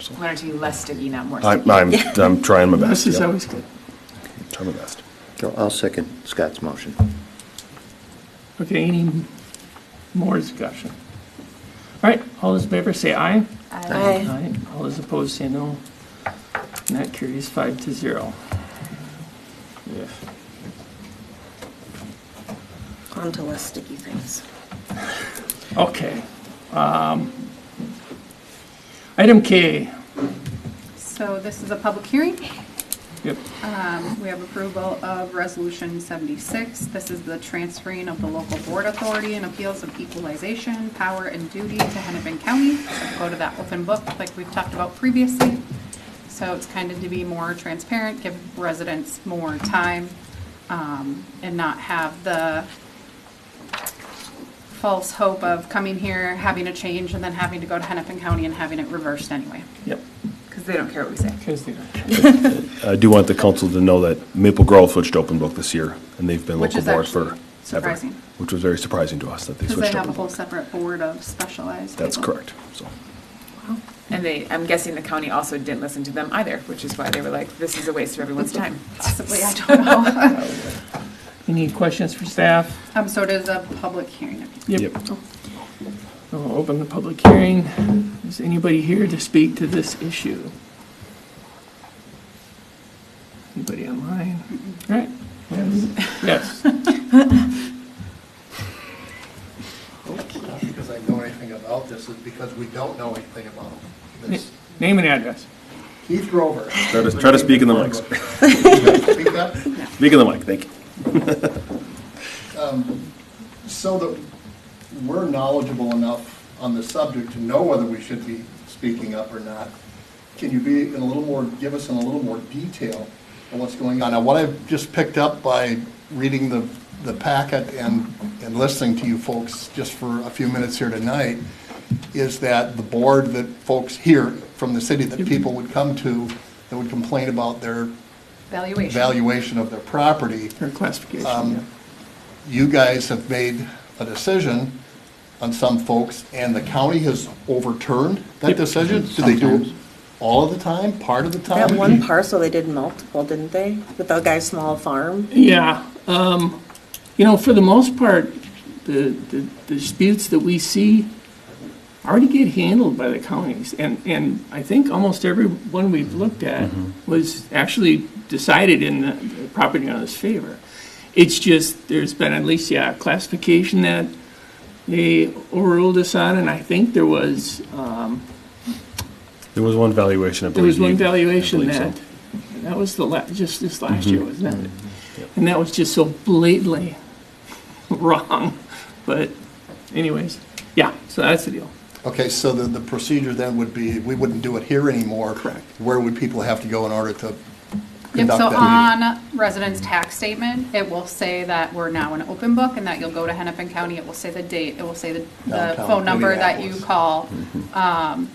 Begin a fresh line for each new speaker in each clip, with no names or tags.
so.
learn to be less sticky, not more sticky.
I'm, I'm, I'm trying my best.
This is
yeah.
always good.
Trying my best.
So I'll second Scott's motion.
Okay, any more discussion? All right, all those in favor say aye.
Aye.
Aye. All those opposed say no. And that carries five to zero.
On to less sticky things.
Okay. Um, Item K,
So this is a public hearing.
yep,
Um, We have approval of Resolution 76. This is the transferring of the local board authority and appeals of equalization, power, and duty to Hennepin County. So Go to that open book like we've talked about previously. So it's kind of to be more transparent, give residents more time, um, and not have the false hope of coming here, having a change, and then having to go to Hennepin County and having it reversed anyway.
yep.
Because they don't care what we say.
Here's the-
I do want the council to know that Maple Grove switched open book this year, and they've been
Which
local
is
board
actually
for ever.
surprising.
Which was very surprising to us that they
Because they
switched
have a
open
whole
book.
separate board of specialized
That's
people.
correct, so.
And they, I'm guessing the county also didn't listen to them either, which is why they were like, this is a waste of everyone's time.
Possibly, I don't know.
Any questions for staff?
Um, so it is a public hearing.
I'll open the public hearing. Is anybody here to speak to this issue? Anybody online? All right. Yes.
Not because I know anything about this, is because we don't know anything about this.
Name and address.
Keith Grover.
Try to, try to speak in the mics.
Speak up.
Speak in the mic, thank you.
So that we're knowledgeable enough on the subject to know whether we should be speaking up or not, can you be in a little more, give us in a little more detail of what's going on? Now, what I've just picked up by reading the, the packet and, and listening to you folks just for a few minutes here tonight, is that the board that folks here from the city that people would come to, that would complain about their
Valuation.
valuation of their property,
Or classification.
Um, you guys have made a decision on some folks, and the county has overturned that decision? Do they do it
Sometimes.
all of the time, part of the time?
That one parcel, they did multiple, didn't they? With the guy's small farm?
Yeah, um, you know, for the most part, the, the the disputes that we see already get handled by the counties. And, and I think almost every one we've looked at was actually decided in the- the property owner's favor. It's just, there's been at least, yeah, classification that they overruled us on, and I think there was,
There was one valuation, I
there
believe.
was one
you- I
valuation
believe so. Mm-hmm.
that, that was the la, just this last year, wasn't it? And that was just so blatantly wrong, but anyways, yeah, so that's the deal.
Okay, so the, the procedure then would be, we wouldn't do it here anymore. Correct. Where would people have to go in order to
Yep,
conduct
so
that meeting?
on residents' tax statement, it will say that we're now an open book and that you'll go to Hennepin County. It will say the date, it will say the, the
Downtown
phone number that you
Minneapolis.
call. Um,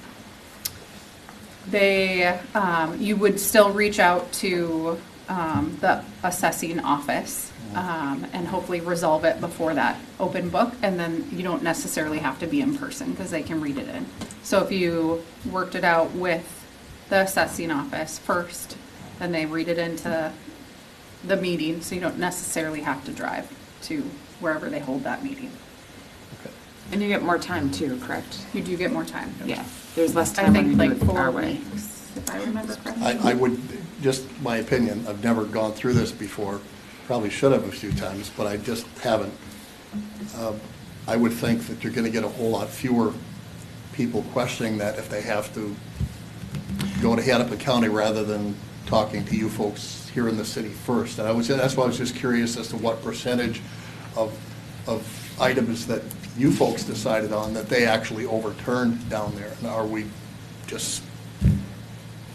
They, um, you would still reach out to, um, the assessing office, um, and hopefully resolve it before that open book. And then you don't necessarily have to be in person because they can read it in. So if you worked it out with the assessing office first, then they read it into the meeting, so you don't necessarily have to drive to wherever they hold that meeting.
And you get more time too, correct?
You do get more time.
Yeah, there's less
I
time when
think
you do
like
it
four
our way.
weeks, if I remember correctly.
I, I would, just my opinion, I've never gone through this before, probably should have a few times, but I just haven't. Um, I would think that you're gonna get a whole lot fewer people questioning that if they have to go to Hennepin County rather than talking to you folks here in the city first. And I was, that's why I was just curious as to what percentage of, of items that you folks decided on that they actually overturned down there. And are we just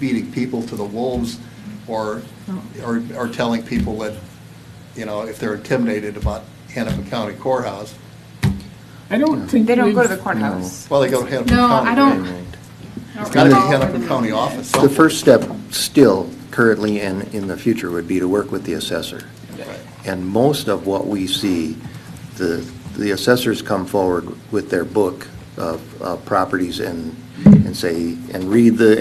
beating people to the wolves or,
Oh.
or, or telling people that, you know, if they're intimidated about Hennepin County Courthouse,
I don't think.
They don't go to
we've-
the courthouse.
well, they go to Hennepin
No,
County.
I don't. I
It's
don't
got to be
recall where the
Hennepin County
meeting
office.
is.
The first step still currently and in the future would be to work with the assessor. And most of what we see, the, the assessors come forward with their book of, of properties and, and say, and read the